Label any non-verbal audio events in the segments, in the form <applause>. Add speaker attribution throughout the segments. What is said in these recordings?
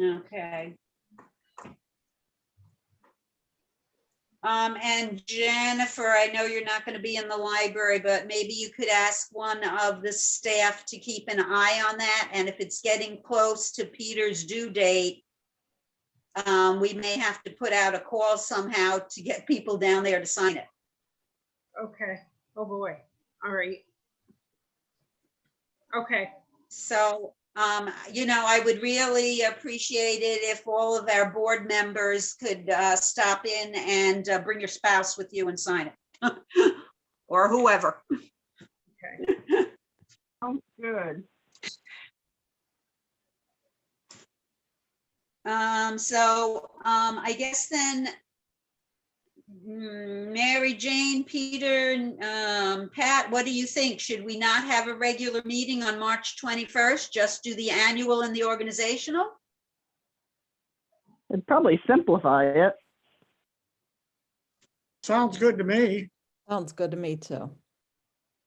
Speaker 1: Okay. Um, and Jennifer, I know you're not gonna be in the library, but maybe you could ask one of the staff to keep an eye on that, and if it's getting close to Peter's due date, um, we may have to put out a call somehow to get people down there to sign it.
Speaker 2: Okay, oh boy, all right. Okay,
Speaker 1: So, um, you know, I would really appreciate it if all of our board members could, uh, stop in and, uh, bring your spouse with you and sign it. <laughs> Or whoever.
Speaker 2: okay,
Speaker 3: Sounds good.
Speaker 1: Um, so, um, I guess then mm, Mary Jane, Peter, um, Pat, what do you think? Should we not have a regular meeting on March twenty-first? Just do the annual and the organizational?
Speaker 3: It'd probably simplify it.
Speaker 4: Sounds good to me.
Speaker 5: Sounds good to me too.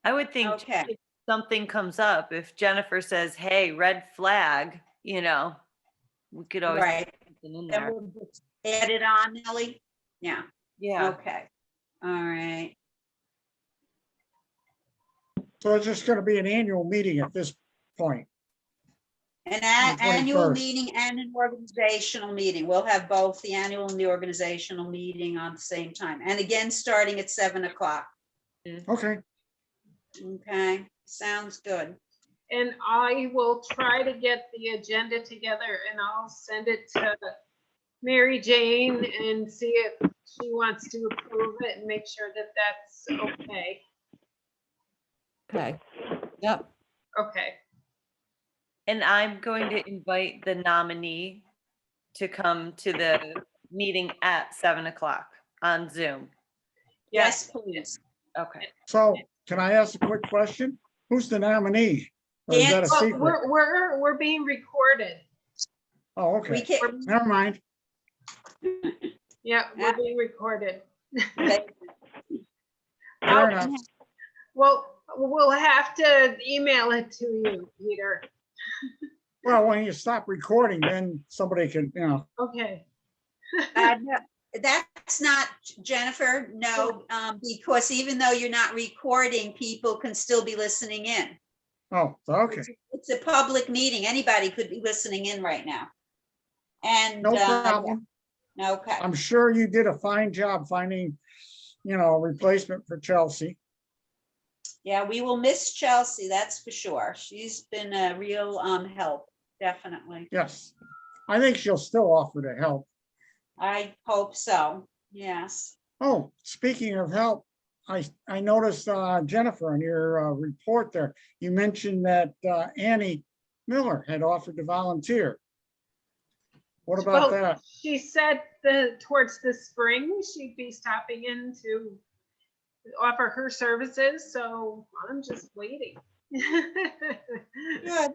Speaker 6: I would think too,
Speaker 1: Okay.
Speaker 6: if something comes up, if Jennifer says, hey, red flag, you know, we could always put
Speaker 1: Right.
Speaker 6: something in
Speaker 1: Then
Speaker 6: there.
Speaker 1: we'll just Add it on, Nellie? Yeah.
Speaker 6: Yeah,
Speaker 1: Okay, all right.
Speaker 4: So it's just gonna be an annual meeting at this point.
Speaker 1: An a-
Speaker 4: The
Speaker 1: annual
Speaker 4: 21st.
Speaker 1: meeting and an organizational meeting. We'll have both the annual and the organizational meeting on the same time. And again, starting at seven o'clock.
Speaker 4: Okay,
Speaker 1: Okay, sounds good.
Speaker 2: and I will try to get the agenda together and I'll send it to Mary Jane and see if she wants to approve it and make sure that that's okay,
Speaker 5: Okay. Yep.
Speaker 2: okay.
Speaker 6: and I'm going to invite the nominee to come to the meeting at seven o'clock on Zoom.
Speaker 1: Yes, please.
Speaker 6: Okay.
Speaker 4: so can I ask a quick question? Who's the nominee? Or is that a
Speaker 1: Dan-
Speaker 2: Well,
Speaker 4: secret?
Speaker 2: We're, we're, we're being recorded,
Speaker 1: We
Speaker 4: Oh, okay,
Speaker 1: can,
Speaker 4: never mind.
Speaker 2: yeah, we're being recorded.
Speaker 1: okay,
Speaker 4: Fair
Speaker 2: Okay.
Speaker 1: Oh.
Speaker 4: enough.
Speaker 2: Well, we'll have to email it to you, Peter.
Speaker 4: Well, when you stop recording, then somebody can, you know,
Speaker 2: Okay,
Speaker 1: uh, no, that's not Jennifer, no, um, because even though you're not recording, people can still be listening in.
Speaker 4: oh, okay,
Speaker 1: It's a public meeting. Anybody could be listening in right now. And,
Speaker 4: no
Speaker 1: uh,
Speaker 4: problem.
Speaker 1: okay.
Speaker 4: I'm sure you did a fine job finding, you know, a replacement for Chelsea.
Speaker 1: Yeah, we will miss Chelsea, that's for sure. She's been a real um help, definitely.
Speaker 4: Yes, I think she'll still offer to help.
Speaker 1: I hope so, yes.
Speaker 4: Oh, speaking of help, I, I noticed, uh, Jennifer, in your, uh, report there, you mentioned that, uh, Annie Miller had offered to volunteer. What
Speaker 2: Well-
Speaker 4: about that?
Speaker 2: she said the, towards the spring, she'd be stopping in to offer her services, so I'm just waiting. <laughs>
Speaker 1: Good.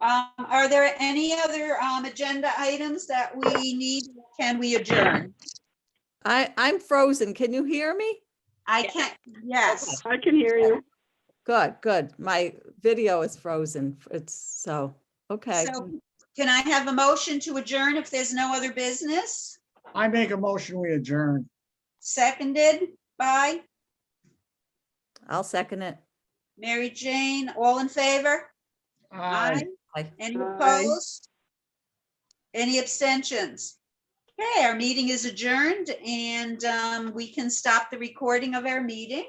Speaker 1: Um, are there any other um agenda items that we need? Can we adjourn?
Speaker 5: I, I'm frozen. Can you hear me?
Speaker 1: I can't, yes,
Speaker 3: I can hear you.
Speaker 5: Good, good. My video is frozen. It's so, okay.
Speaker 1: so can I have a motion to adjourn if there's no other business?
Speaker 4: I make a motion, we adjourn.
Speaker 1: Seconded by
Speaker 5: I'll second it.
Speaker 1: Mary Jane, all in favor?
Speaker 4: Aye.
Speaker 5: Aye.
Speaker 1: Any
Speaker 3: Aye.
Speaker 1: opposed? Any abstentions? Okay, our meeting is adjourned and um, we can stop the recording of our meeting.